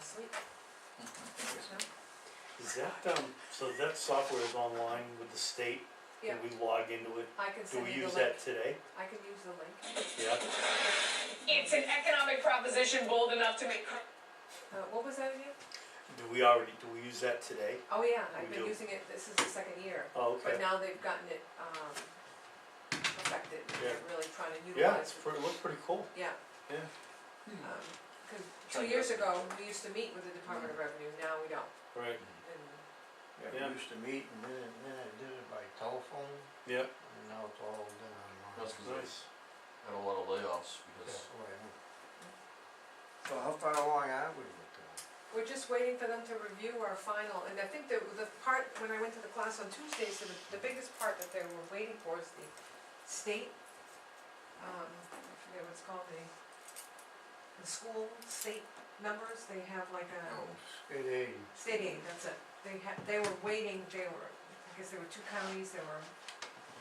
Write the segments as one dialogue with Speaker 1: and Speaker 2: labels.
Speaker 1: Sweet.
Speaker 2: Mm-hmm. Is that, um, so that software is online with the state?
Speaker 1: Yeah,
Speaker 2: And we log into it?
Speaker 1: I can
Speaker 2: Do
Speaker 1: send
Speaker 2: we
Speaker 1: you the
Speaker 2: use
Speaker 1: link,
Speaker 2: that today?
Speaker 1: I can use the link,
Speaker 2: Yeah?
Speaker 3: It's an economic proposition bold enough to make
Speaker 1: uh, what was that again?
Speaker 2: Do we already, do we use that today?
Speaker 1: Oh, yeah, I've
Speaker 2: We
Speaker 1: been
Speaker 2: do.
Speaker 1: using it, this is the second year,
Speaker 2: Oh,
Speaker 1: but
Speaker 2: okay.
Speaker 1: now they've gotten it, um, perfected, and they're really trying to
Speaker 2: Yeah,
Speaker 1: utilize
Speaker 2: it's
Speaker 1: it.
Speaker 2: pretty, looks pretty cool.
Speaker 1: Yeah.
Speaker 2: Yeah.
Speaker 1: Um, cause two
Speaker 4: Try to-
Speaker 1: years ago, we used to meet with the Department of Revenue, now we don't,
Speaker 2: Right.
Speaker 1: and,
Speaker 4: Yeah,
Speaker 2: Yeah.
Speaker 4: we used to meet and then, then I did it by telephone,
Speaker 2: Yeah.
Speaker 4: and now it's all done online.
Speaker 5: That's good.
Speaker 2: Nice.
Speaker 5: had a lot of layoffs
Speaker 4: That's
Speaker 5: because
Speaker 4: the way I am. So how far along are we with that?
Speaker 1: we're just waiting for them to review our final, and I think the, the part, when I went to the class on Tuesdays, the, the biggest part that they were waiting for is the state, um, I forget what it's called, the, the school, state numbers, they have like a.
Speaker 4: State aid,
Speaker 1: State aid, that's it. They had, they were waiting, they were, I guess there were two counties, they were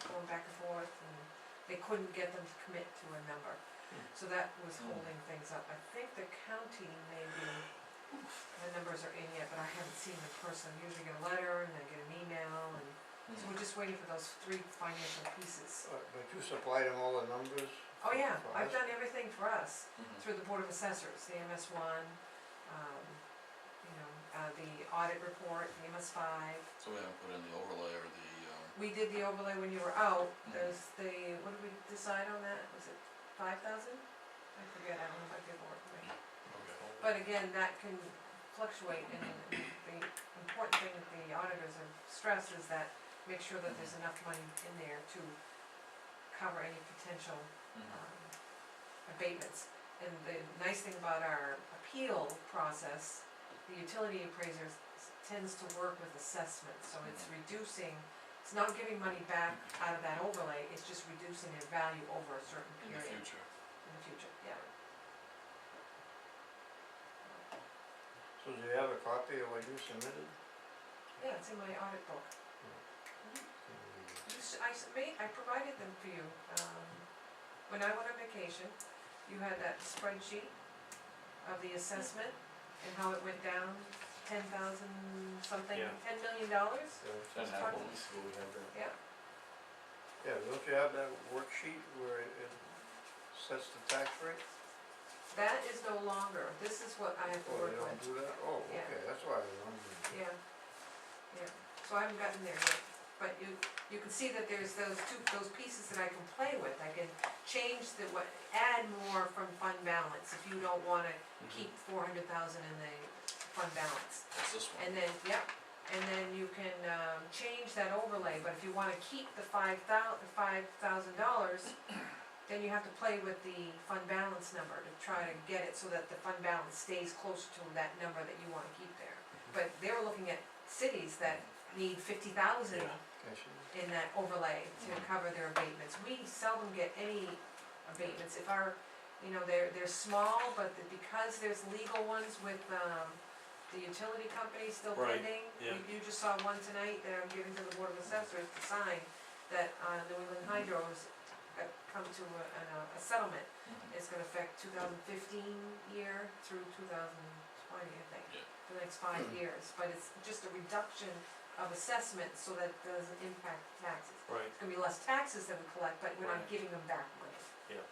Speaker 1: going back and forth, and they couldn't get them to commit to a number.
Speaker 4: Hmm.
Speaker 1: So that was holding things up. I think the county maybe, the numbers are in yet, but I haven't seen the person. Usually get a letter, and then get an email, and
Speaker 5: Mhm.
Speaker 1: so we're just waiting for those three financial pieces.
Speaker 4: Uh, but you supplied them all the numbers?
Speaker 1: Oh, yeah,
Speaker 4: for
Speaker 1: I've
Speaker 4: us? Hmm.
Speaker 1: done everything for us
Speaker 5: Mhm.
Speaker 1: through the Board of Assessors, the MS one, um, you know, uh, the audit report, the MS five.
Speaker 5: so we haven't put in the overlay or the, um,
Speaker 1: We did the overlay when you were out,
Speaker 5: Mhm.
Speaker 1: there's the, what did we decide on that, was it five thousand? I forget, I don't know if I did work with it. But again, that can fluctuate, and the important thing that the auditors have stressed is that make sure that there's enough money in there to cover any potential
Speaker 5: Mhm.
Speaker 1: um, abatements. And the nice thing about our appeal process, the utility appraiser s- tends to work with assessments, so it's reducing, it's not giving money back out of that overlay, it's just reducing their value over a certain
Speaker 5: in the
Speaker 1: period
Speaker 5: future.
Speaker 1: in the future, yeah.
Speaker 4: So do you have a copy of what you submitted?
Speaker 1: Yeah, it's in my audit book.
Speaker 4: Can we-
Speaker 1: You s- I s- made, I provided them for you, um, when I went on vacation, you had that spreadsheet of the assessment and how it went down, ten thousand something,
Speaker 2: Yeah.
Speaker 1: ten million dollars?
Speaker 4: uh,
Speaker 5: Doesn't
Speaker 1: have
Speaker 5: happen.
Speaker 1: one.
Speaker 5: we have that.
Speaker 4: Yeah, don't you have that worksheet where it it sets the tax rate?
Speaker 1: That is no longer, this is what I have to
Speaker 4: Oh,
Speaker 1: work
Speaker 4: they don't
Speaker 1: with,
Speaker 4: do that? Oh,
Speaker 1: Yeah.
Speaker 4: okay, that's why I was wondering.
Speaker 1: yeah, yeah, so I haven't gotten there yet. But you, you can see that there's those two, those pieces that I can play with, I can change the, what, add more from fund balance, if you don't wanna keep four hundred thousand in the fund balance.
Speaker 5: That's this one.
Speaker 1: And then, yep, and then you can, um, change that overlay, but if you wanna keep the five thou, the five thousand dollars, then you have to play with the fund balance number to try to get it so that the fund balance stays close to that number that you wanna keep there. But they were looking at cities that need fifty thousand
Speaker 2: Yeah.
Speaker 4: Can she?
Speaker 1: in that overlay to cover their abatements. We seldom get any abatements, if our, you know, they're, they're small, but the- because there's legal ones with, um, the utility company still
Speaker 2: Right,
Speaker 1: pending.
Speaker 2: yeah.
Speaker 1: You- You just saw one tonight that I'm giving to the Board of Assessors to sign, that, uh, New England Hydro's uh, come to a, an, uh, a settlement.
Speaker 5: Mhm.
Speaker 1: It's gonna affect two thousand fifteen year through two thousand twenty, I think,
Speaker 5: Yeah. Hmm.
Speaker 1: for the next five years, but it's just a reduction of assessment so that it doesn't impact taxes.
Speaker 2: Right.
Speaker 1: It's gonna be less taxes that we collect, but we're not
Speaker 2: Right.
Speaker 1: giving them back money.
Speaker 4: Yeah,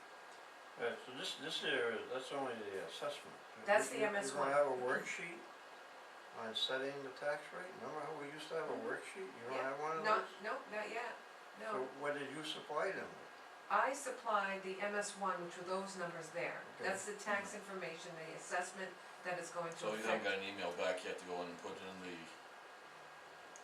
Speaker 4: Uh, so this, this area, that's only the assessment.
Speaker 1: That's the
Speaker 4: You- you-
Speaker 1: MS one. Mm-hmm.
Speaker 4: You don't have a worksheet on setting the tax rate? Remember how we used to have a worksheet? You
Speaker 1: Mm-hmm.
Speaker 4: don't
Speaker 1: Yeah.
Speaker 4: have one of
Speaker 1: No, no,
Speaker 4: those?
Speaker 1: not yet,
Speaker 4: So
Speaker 1: no.
Speaker 4: what did you supply them with?
Speaker 1: I supplied the MS one, which were those numbers there.
Speaker 4: Okay.
Speaker 1: That's the tax information, the assessment that is going to
Speaker 5: Hmm. So you haven't
Speaker 1: affect.
Speaker 5: got an email back yet to go in and put in the,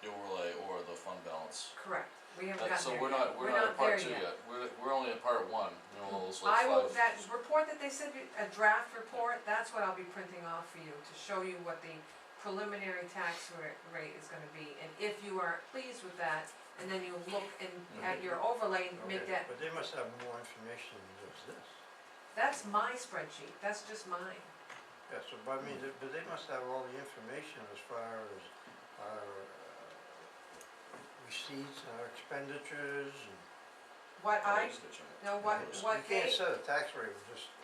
Speaker 5: the overlay or the fund balance.
Speaker 1: Correct, we haven't
Speaker 5: That-
Speaker 1: gotten
Speaker 5: So
Speaker 1: there
Speaker 5: we're
Speaker 1: yet.
Speaker 5: not, we're not at part
Speaker 1: there
Speaker 5: two yet, we're, we're only at part one, you know, those like
Speaker 1: I
Speaker 5: five.
Speaker 1: will, that report that they said, a draft report, that's what I'll be printing off for you, to show you what the preliminary tax ra- rate is gonna be, and if you are pleased with that, and then you look and at your overlay and make
Speaker 4: Mm-hmm.
Speaker 1: that,
Speaker 4: Okay, But they must have more information than just this.
Speaker 1: that's my spreadsheet, that's just mine.
Speaker 4: Yeah, so, but I mean,
Speaker 1: Mm-hmm.
Speaker 4: they- but they must have all the information as far as our uh, receipts and our expenditures and.
Speaker 1: What I,
Speaker 5: Always the check.
Speaker 1: no, what,
Speaker 4: You
Speaker 1: what
Speaker 4: can't
Speaker 1: they,
Speaker 4: set a tax rate with just